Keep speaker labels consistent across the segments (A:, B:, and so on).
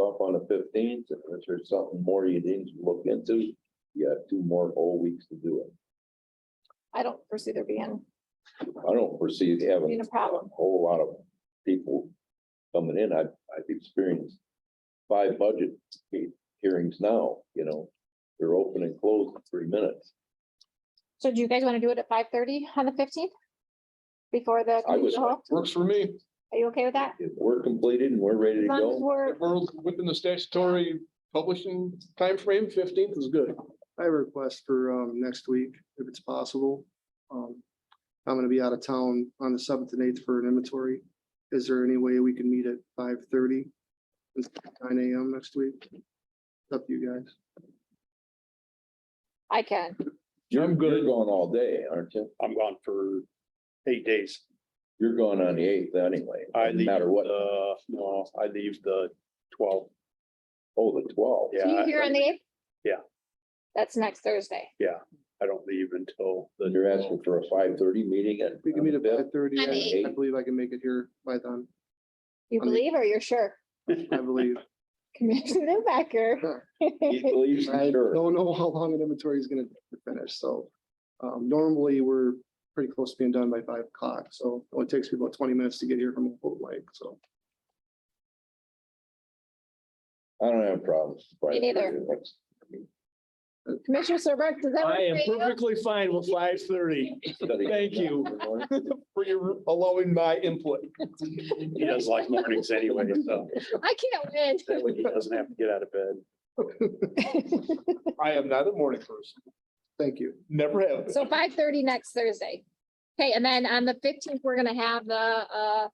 A: the fifteenth, if there's something more you need to look into, you have two more whole weeks to do it.
B: I don't foresee there being,
A: I don't foresee having
B: being a problem.
A: a whole lot of people coming in. I've, I've experienced five budget he- hearings now, you know, they're open and closed in three minutes.
B: So do you guys want to do it at five thirty on the fifteenth? Before the,
A: I was,
B: community hall?
C: Works for me.
B: are you okay with that?
A: if we're completed and we're ready to
B: As long
A: go,
B: as we're,
C: If We're within the statutory publishing timeframe, fifteenth is good.
D: I have a request for um next week, if it's possible. Um, I'm gonna be out of town on the seventh and eighth for an inventory. Is there any way we can meet at five thirty? Nine AM next week? It's Up to you guys.
B: I can.
A: you're, you're gone all day, aren't you?
E: I'm gone for eight days.
A: You're gone on the eighth anyway,
E: I
A: no
E: leave,
A: matter what.
E: uh, no, I leave the twelve.
A: Oh, the twelfth.
E: Yeah.
B: So you
E: I-
B: here on the eighth?
E: Yeah.
B: That's next Thursday.
E: I don't leave until the.
A: You're asking for a five thirty meeting at.
D: We can meet at five thirty.
B: On the
D: I
A: eighth.
D: believe I can make it here by then,
B: You
D: I mean-
B: believe or you're sure?
D: I believe.
B: Commissioner Newbecker.
A: He believes,
D: I
A: sure.
D: don't know how long an inventory is gonna finish, so. Um, normally, we're pretty close to being done by five o'clock, so it only takes me about twenty minutes to get here from Old Lake, so.
A: I don't have problems.
B: Me neither. Commissioner Serbrook, does that work
F: I am
B: for you?
F: perfectly fine with five thirty.
A: Thank
F: Thank you.
C: For your allowing my input.
E: He doesn't like mornings anyway, so
B: I can't
E: that way he doesn't have to get out of bed.
B: win.
C: I am not a morning person,
D: Thank you.
C: never have.
B: So five thirty next Thursday. Okay, and then on the fifteenth, we're gonna have the, uh,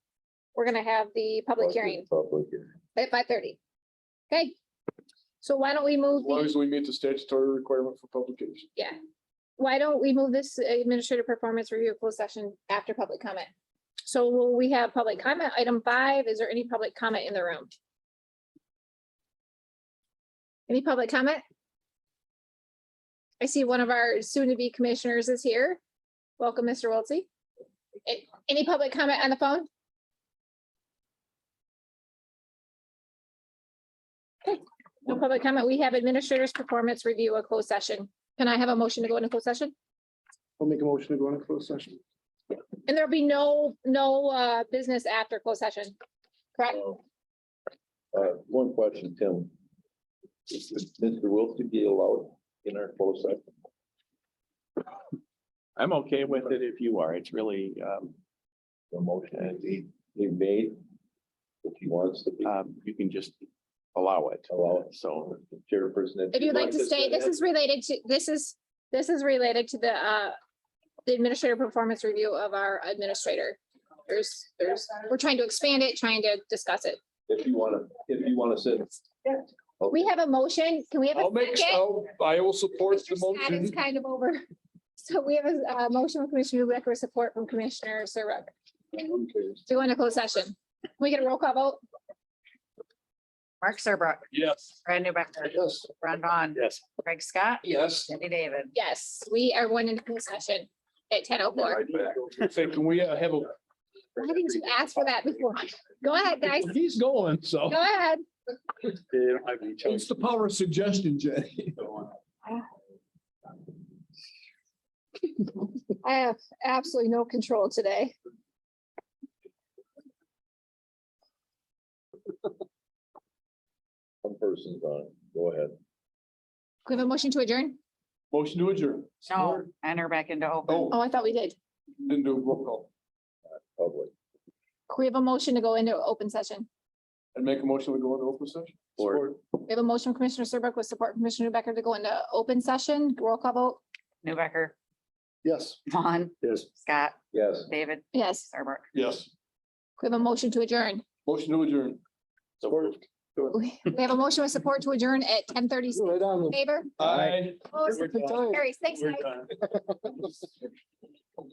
B: we're gonna have the public hearing
A: Public hearing.
B: at five thirty. Okay, so why don't we move,
C: As long
B: the-
C: as we meet the statutory requirement for publication.
B: why don't we move this administrative performance review closed session after public comment? So will we have public comment? Item five, is there any public comment in the room? Any public comment? I see one of our soon-to-be commissioners is here. Welcome, Mr. Wiltie. A- Any public comment on the phone? Okay, No public comment. We have administrators' performance review, a closed session. Can I have a motion to go into closed session?
D: I'll make a motion to go into closed session.
B: And there'll be no, no uh, business after closed session, correct?
A: Uh, one question, Tim. Is is Mr. Wilson be allowed in our closed session?
G: I'm okay with it if you are. It's really, um,
A: The motion that he, he made, if he wants to be
G: um, you can just allow it.
A: allowed,
G: So
A: chairperson.
B: If you'd like to stay, this is related to, this is, this is related to the, uh, the administrative performance review of our administrator. There's, there's, we're trying to expand it, trying to discuss it.
A: If you wanna, if you wanna sit.
B: We have a motion. Can we have
C: I'll
B: a
C: make,
B: second?
C: I'll, I will support
B: Mr.
C: the
B: Scott is
C: motion.
B: kind of over. So we have a, uh motion from Commissioner Newbecker, support from Commissioner Serbrook. To go into closed session. Can we get a roll call vote?
H: Mark Serbrook,
E: Yes.
H: Brad Newbecker,
C: Yes.
H: Ron Vaughn,
E: Yes.
H: Craig Scott,
C: Yes.
H: Jenny David.
B: Yes, we are going into closed session at ten oh four.
C: Say, can we uh, have a,
B: Why didn't you ask for that before? Go ahead, guys.
F: He's going, so.
B: Go ahead.
E: They don't have any choice.
F: It's the power of suggestion, Jay.
B: I have absolutely no control today.
A: One person's on, go ahead.
B: We have a motion to adjourn?
C: motion to adjourn?
H: No, enter back into open.
B: Oh,
C: Oh,
B: I thought we did.
C: didn't do a roll call.
A: Public.
B: We have a motion to go into open session.
C: And make a motion to go into open session?
G: Support.
B: We have a motion from Commissioner Serbrook with support from Commissioner Becker to go into open session. Roll call vote.
H: Newbecker,
C: Yes.
H: Vaughn,
E: Yes.
H: Scott,
A: Yes.
H: David,
B: Yes,
H: Serbrook.
C: Yes.
B: we have a motion to adjourn.
C: Motion to adjourn.
E: Support.
B: We have a motion with support to adjourn at ten thirty.
D: Right on.
B: Favor?
C: Aye.
B: Opposed?
E: We're done.
B: Carries. Thanks,
E: We're
B: guys.
E: done.